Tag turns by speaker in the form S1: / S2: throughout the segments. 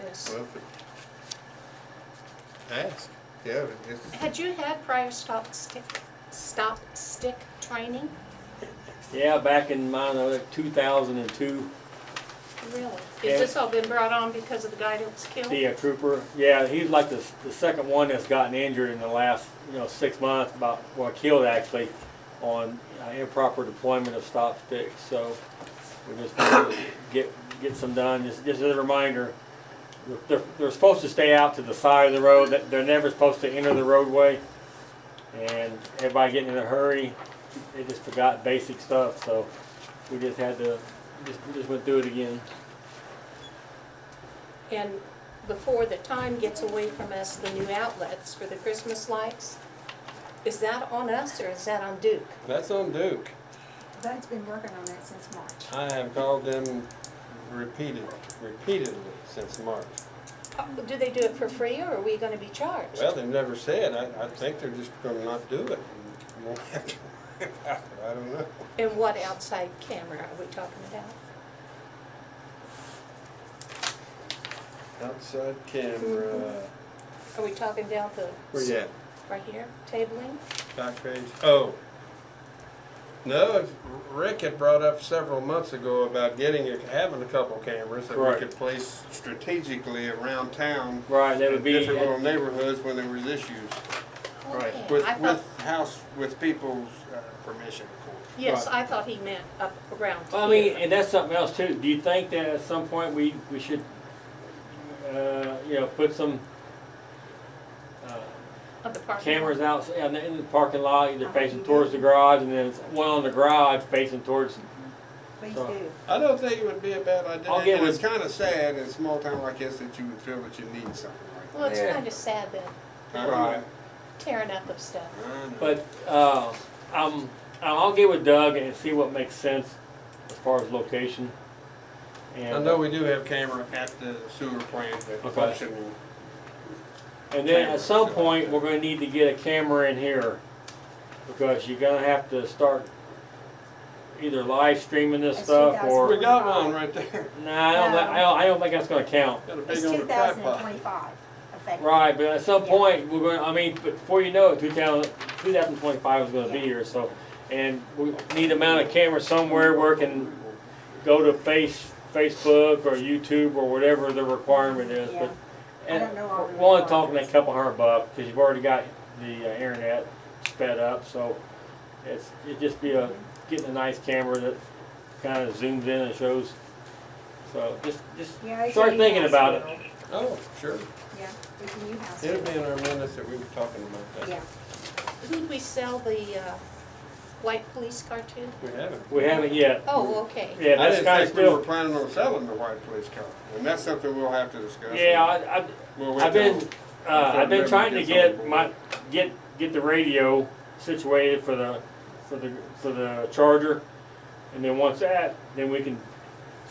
S1: Yes.
S2: Well, but- Ask, yeah, it's,
S1: Had you had prior stop stick, stop stick training?
S3: Yeah, back in my, like two thousand and two,
S1: Really?
S3: Yeah.
S1: Has this all been brought on because of the guy that was killed?
S3: be a trooper. Yeah, he's like the, the second one that's gotten injured in the last, you know, six months, about, well, killed actually, on uh, improper deployment of stop sticks, so we just wanted to get, get some done, just, just as a reminder. They're, they're supposed to stay out to the side of the road, that, they're never supposed to enter the roadway. And everybody getting in a hurry, they just forgot basic stuff, so we just had to, just, just went through it again.
S1: And before the time gets away from us, the new outlets for the Christmas lights, is that on us or is that on Duke?
S4: That's on Duke.
S5: Bud's been working on that since March.
S4: I have called them repeated, repeatedly since March.
S1: Uh, Do they do it for free or are we gonna be charged?
S4: Well, they've never said, I, I think they're just gonna not do it. You won't have to worry about it. I don't know.
S1: And what outside camera are we talking about?
S4: Outside camera,
S1: Are we talking down the?
S4: where you at?
S1: Right here, tabling?
S4: Back page, oh. No, Rick had brought up several months ago about getting, a- having a couple cameras that we
S3: Right.
S4: could place strategically around town.
S3: Right, that
S4: in
S3: would be.
S4: Different little neighborhoods when there was issues.
S3: Right.
S1: Okay,
S4: With,
S1: I thought-
S4: with house, with people's uh, permission, of course.
S1: Yes,
S3: Right.
S1: I thought he meant up around
S3: Well, I mean,
S1: here.
S3: and that's something else too. Do you think that at some point we, we should, uh, you know, put some, uh,
S1: Of the parking lot.
S3: cameras out in the, in the parking lot, either facing towards the garage and then it's one on the garage facing towards,
S5: Please
S3: So-
S5: do.
S4: I don't think it would be a bad idea.
S3: I'll get
S4: and it's
S3: with-
S4: kind of sad in a small town like this that you would feel that you need something
S1: Well,
S4: like
S1: it's
S3: Yeah.
S1: kind of sad, the
S4: that. I don't know.
S1: tearing up of stuff.
S4: I know.
S3: but, uh, um, I'll get with Doug and see what makes sense as far as location.
S4: I
S3: And,
S4: know we do have camera at the sewer plant that
S3: Okay.
S4: functioning.
S3: and then at some point, we're gonna need to get a camera in here because you're gonna have to start either live streaming this
S5: I see
S3: stuff
S5: that's
S3: or.
S5: what
S4: We got one right there.
S3: Nah, I don't,
S5: No.
S3: thi- I don't, I don't think that's gonna count.
S4: Got a
S5: It's
S4: big
S5: two
S4: old
S5: thousand and
S4: tripod.
S5: twenty-five effective.
S3: Right, but at some
S5: Yeah.
S3: point, we're gonna, I mean, but before you know it, two thousand, two thousand twenty-five is gonna be
S5: Yeah.
S3: here, so. And we need to mount a camera somewhere where it can go to face, Facebook or YouTube or whatever the requirement is,
S5: Yeah.
S3: but.
S5: I
S3: And
S5: don't know all the
S3: we're only talking a
S5: requirements.
S3: couple hundred bucks, cause you've already got the uh, internet sped up, so. It's, it'd just be a, getting a nice camera that kinda zooms in and shows. So just, just
S5: Yeah, it's a
S3: start
S5: new
S3: thinking
S5: house
S3: about it.
S5: bill.
S4: Oh, sure.
S5: Yeah, it's a new house.
S4: It'll
S5: bill.
S4: be in our minutes that we were talking about
S5: Yeah,
S4: that.
S1: Who'd we sell the uh, white police car to?
S4: We haven't.
S3: We haven't yet.
S1: Oh, okay.
S3: Mm-hmm. Yeah,
S4: I
S3: that's
S4: didn't
S3: kind of
S4: think we were
S3: still.
S4: planning on selling the white police car. And that's something we'll have to discuss.
S3: Yeah, I, I,
S4: We'll wait
S3: I've been,
S4: till-
S3: uh, I've been
S4: February
S3: trying to
S4: gets on
S3: get
S4: board.
S3: my, get, get the radio situated for the, for the, for the charger. And then once that, then we can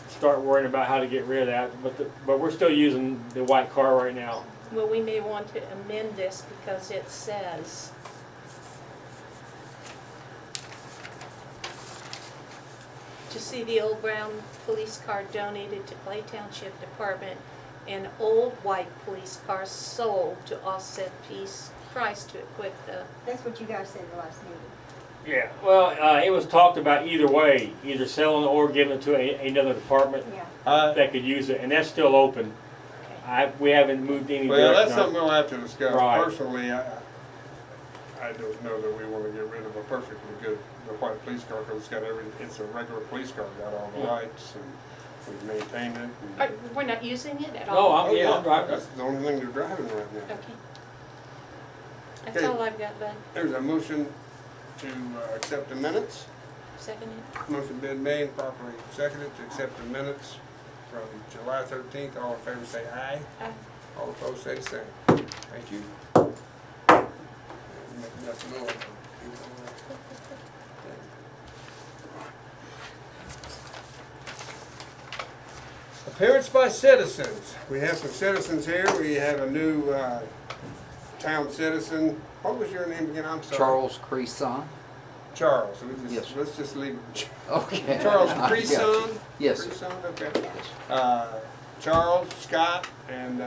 S3: start worrying about how to get rid of that, but the, but we're still using the white car right now.
S1: Well, we may want to amend this because it says, to see the old brown police car donated to Clay Township Department and old white police car sold to offset piece price to equip the,
S5: that's what you guys said the last meeting.
S3: Yeah. Well, uh, it was talked about either way, either selling or giving it to a, another department
S5: Yeah,
S4: I-
S3: that could use it, and that's still open. I, we haven't moved any
S4: Well,
S3: direction
S4: that's
S3: on it.
S4: something we'll have to discuss.
S3: Right.
S4: Personally, I, I- I don't know that we wanna get rid of a perfectly good, the white police car, cause it's got every, it's a regular police car, got all the
S3: Yeah.
S4: lights and we've maintained it. and- Oh,
S1: Are- we're not using it at
S3: No,
S1: all?
S3: I'm, Oh, yeah, I'm driving.
S4: That's the only thing they're driving right now.
S1: Okay. That's all I've got, bud.
S4: There's a motion to uh, accept the minutes.
S1: Second in.
S4: Motion been made, properly seconded to accept the minutes from July thirteenth. All in favor say aye.
S1: Aye.
S4: All opposed say the same. Thank you. Make nothing more. Appearance by citizens. We have some citizens here. We have a new uh, town citizen. What was your name again? I'm sorry.
S6: Charles Creason.
S4: Charles. So we
S6: Yes.
S4: just- Let's just leave it.
S6: Okay.
S4: Charles
S6: I got you.
S4: Creason?
S6: Yes.
S4: Creason, okay. Uh, Charles, Scott, and